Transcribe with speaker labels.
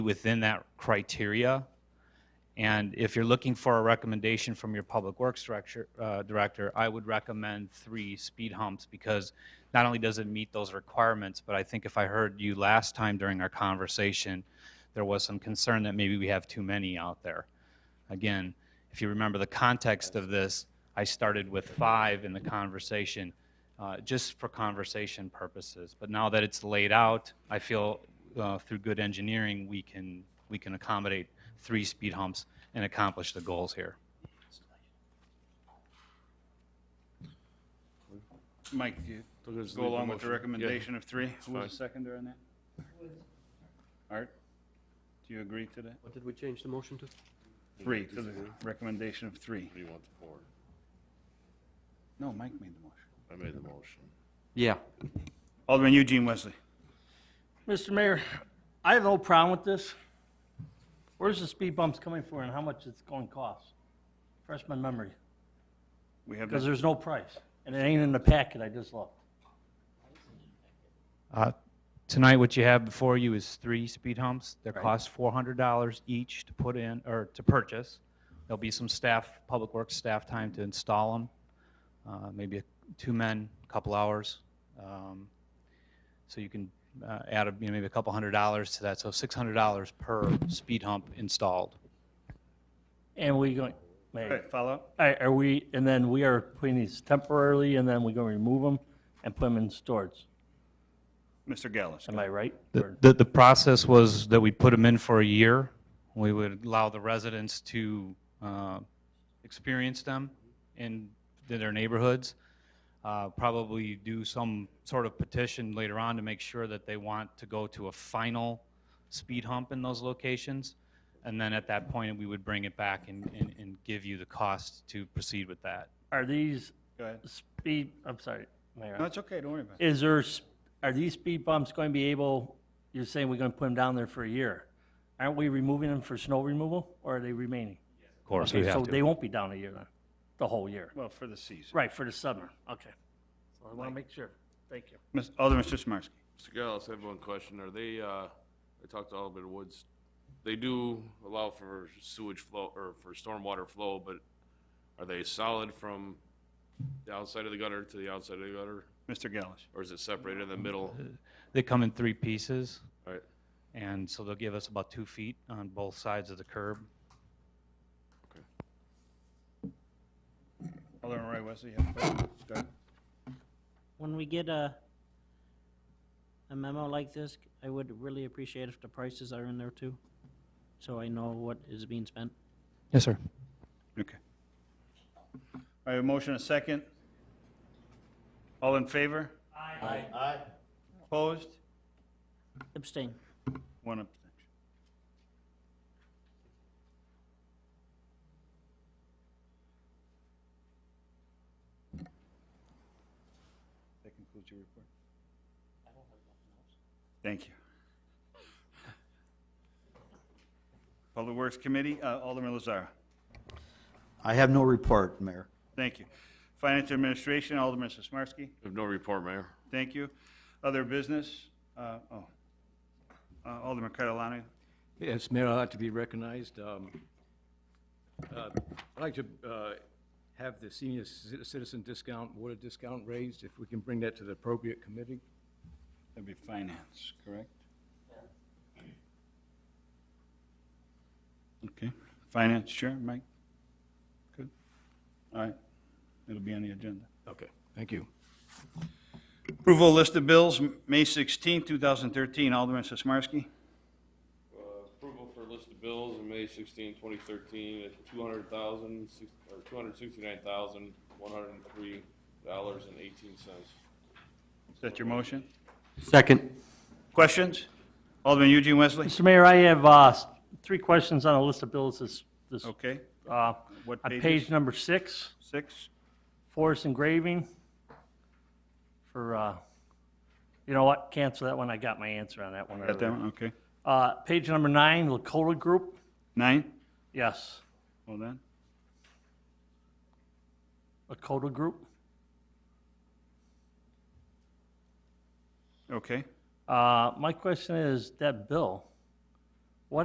Speaker 1: within that criteria. And if you're looking for a recommendation from your Public Works Director, uh, Director, I would recommend three speed humps because not only does it meet those requirements, but I think if I heard you last time during our conversation, there was some concern that maybe we have too many out there. Again, if you remember the context of this, I started with five in the conversation, uh, just for conversation purposes. But now that it's laid out, I feel uh, through good engineering, we can, we can accommodate three speed humps and accomplish the goals here.
Speaker 2: Mike,
Speaker 3: Let's
Speaker 2: go
Speaker 3: leave
Speaker 2: along with the
Speaker 3: motion.
Speaker 2: recommendation of three. Who
Speaker 3: fine.
Speaker 2: was the seconder on that? Art, do you agree to that?
Speaker 4: What did we change the motion to?
Speaker 2: Three, to the recommendation of three.
Speaker 3: Yeah. You want the board.
Speaker 2: No, Mike made the motion.
Speaker 3: I made the motion.
Speaker 4: Yeah.
Speaker 2: Alderman Eugene Wesley.
Speaker 5: Mr. Mayor, I have no problem with this. Where's the speed bumps coming from and how much it's going to cost? Fresh my memory,
Speaker 2: We have,
Speaker 5: because
Speaker 2: that.
Speaker 5: there's no price, and it ain't in the packet I just looked.
Speaker 1: Uh, Tonight, what you have before you is three speed humps. They cost $400 each to put in, or to purchase. There'll be some staff, Public Works staff time to install them, uh, maybe two men, a couple hours. Um, So you can uh, add, a- you know, maybe a couple hundred dollars to that, so $600 per speed hump installed.
Speaker 5: And we going,
Speaker 2: All
Speaker 5: Mayor,
Speaker 2: right, follow up?
Speaker 5: are are we, and then we are putting these temporarily, and then we're going to remove them and put them in storage.
Speaker 2: Mr. Gallus.
Speaker 5: Am I right?
Speaker 1: The,
Speaker 5: Or-
Speaker 1: the- the process was that we put them in for a year. We would allow the residents to uh, experience them in their neighborhoods. Uh, Probably do some sort of petition later on to make sure that they want to go to a final speed hump in those locations. And then at that point, we would bring it back and, and- and give you the cost to proceed with that.
Speaker 5: Are these
Speaker 2: Go ahead.
Speaker 5: speed, I'm sorry, Mayor.
Speaker 2: No, it's okay, don't worry about it.
Speaker 5: Is there, s- are these speed bumps going to be able, you're saying we're going to put them down there for a year? Aren't we removing them for snow removal, or are they remaining?
Speaker 1: Of course,
Speaker 5: Okay, so they won't be down a year then, the whole year?
Speaker 2: Well, for the season.
Speaker 5: Right, for the summer, okay. So I want to make sure, thank you.
Speaker 2: Miss- Alderman Sizmarsky.
Speaker 3: Mr. Gallus, I have one question. Are they, uh, I talked to Alderman Woods, they do allow for sewage flow, or for stormwater flow, but are they solid from the outside of the gutter to the outside of the gutter?
Speaker 2: Mr. Gallus.
Speaker 3: Or is it separated in the middle?
Speaker 1: They come in three pieces.
Speaker 3: All right,
Speaker 1: And so they'll give us about two feet on both sides of the curb.
Speaker 2: Alderman Roy Wesley, you have a question? Go ahead.
Speaker 6: when we get a, a memo like this, I would really appreciate if the prices are in there too, so I know what is being spent.
Speaker 1: Yes, sir.
Speaker 2: Okay. I have a motion, a second. All in favor? Aye. Aye. Opposed?
Speaker 6: Abstain.
Speaker 2: One abstention. That concludes your report? Thank you. Public Works Committee, uh, Alderman Lazara.
Speaker 7: I have no report, Mayor.
Speaker 2: Thank you. Finance Administration, Alderman Sismarski.
Speaker 3: I have no report, Mayor.
Speaker 2: Thank you. Other business, uh, oh, Uh, Alderman Catalano.
Speaker 8: Yes, Mayor, I'd like to be recognized. Um, uh, I'd like to uh, have the senior ci- citizen discount, water discount raised, if we can bring that to the appropriate committee.
Speaker 2: That'd be finance, correct? Okay, finance, sure, Mike? Good. All right, it'll be on the agenda.
Speaker 8: Okay, thank you.
Speaker 2: Approval of list of bills, M- May 16, 2013, Alderman Sismarski.
Speaker 3: Uh, Approval for list of bills in May 16, 2013, at $200,000, six- or $269,103.18.
Speaker 2: Is that your motion?
Speaker 4: Second.
Speaker 2: Questions? Alderman Eugene Wesley?
Speaker 5: Mr. Mayor, I have, uh, s- three questions on a list of bills this, this,
Speaker 2: Okay,
Speaker 5: uh,
Speaker 2: what
Speaker 5: on
Speaker 2: pages?
Speaker 5: page number six,
Speaker 2: six?
Speaker 5: forest engraving for, uh, you know what, cancel that one, I got my answer on that one
Speaker 2: Got that
Speaker 5: already.
Speaker 2: one, okay.
Speaker 5: Uh, page number nine, Lakota Group,
Speaker 2: Nine?
Speaker 5: yes,
Speaker 2: Hold on.
Speaker 5: Lakota Group.
Speaker 2: Okay.
Speaker 5: Uh, my question is, that bill,